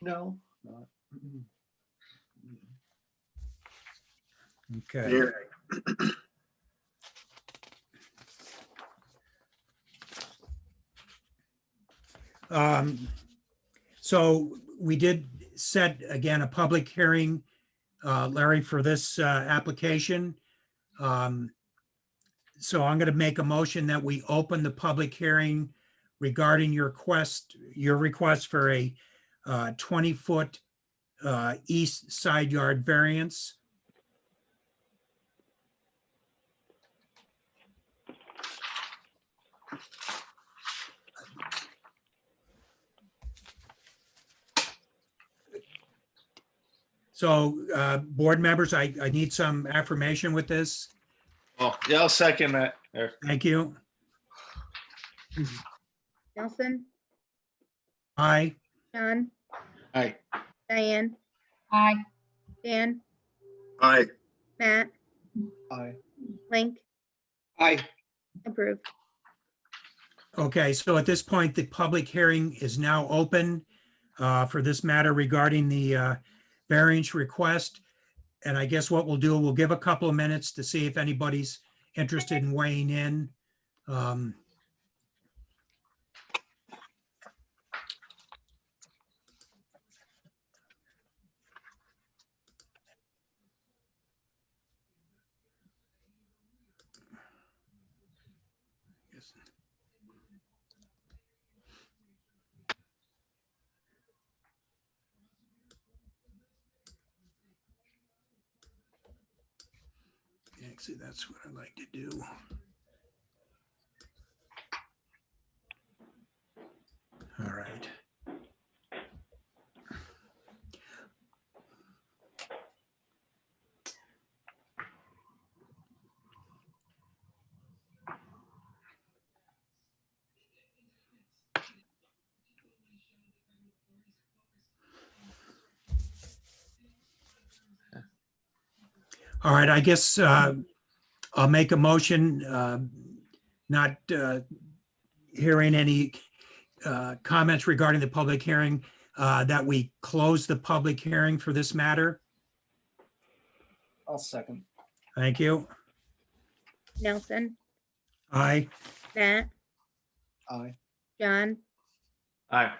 No, not. Mm-hmm. Okay, Yeah, um, so we did set again a public hearing, uh, Larry, for this, uh, application. Um, so I'm gonna make a motion that we open the public hearing regarding your quest, your request for a, uh, twenty-foot, uh, east side yard variance. So, uh, board members, I, I need some affirmation with this. Oh, yeah, I'll second that. Eric. Thank you. Nelson, Aye. John, Aye. Diane, Aye. Dan, Aye. Matt, I, Link, Aye, approved. Okay, so at this point, the public hearing is now open uh, for this matter regarding the uh, variance request. And I guess what we'll do, we'll give a couple of minutes to see if anybody's interested in weighing in. Um, Actually, that's what I like to do. All right. All right, I guess uh, I'll make a motion, uh, not uh, hearing any uh, comments regarding the public hearing, uh, that we close the public hearing for this matter. I'll second. Thank you. Nelson, Aye. Matt, I, John, Aye.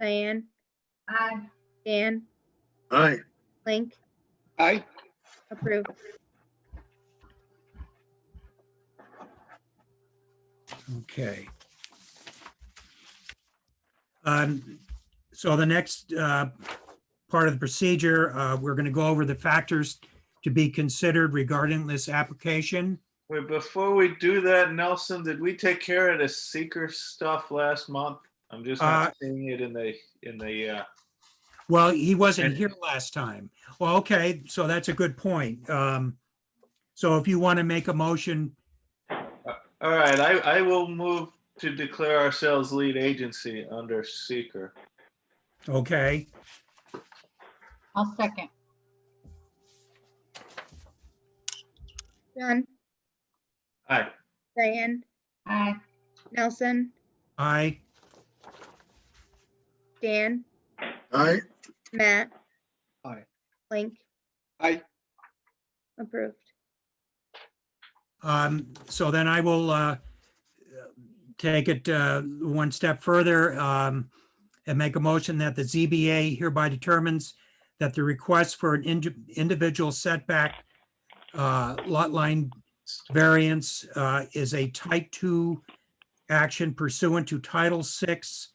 Diane, Aye. Dan, Aye. Link, aye, approved. Okay. Um, So the next uh, part of the procedure, uh, we're going to go over the factors to be considered regarding this application. Wait, before we do that, Nelson, did we take care of the seeker stuff last month? I'm just not seeing it in the, in the, uh, Well, he wasn't And- here last time. Well, okay, so that's a good point. Um, So if you want to make a motion, all right, I, I will move to declare ourselves lead agency under seeker. okay, I'll second. John, Aye. Diane, Aye. Nelson, I, Dan, Aye. Matt. Aye. Link, aye, approved. um, so then I will uh, take it uh, one step further um, and make a motion that the ZBA hereby determines that the request for an indi- individual setback uh, lot line variance uh, is a type two action pursuant to Title Six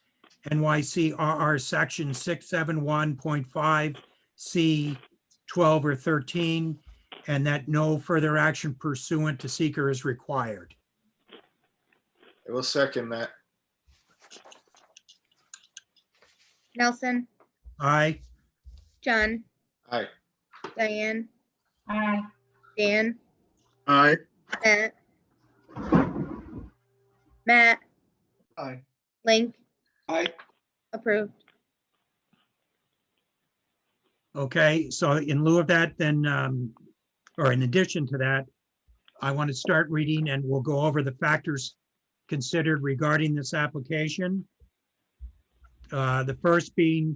NYC RR Section six seven one point five C twelve or thirteen, and that no further action pursuant to seeker is required. I will second that. Nelson, Aye. John, Aye. Diane, Aye. Dan, Aye. Matt. Matt, I, Link, aye. approved. Okay, so in lieu of that, then, um, or in addition to that, I want to start reading and we'll go over the factors considered regarding this application. Uh, The first being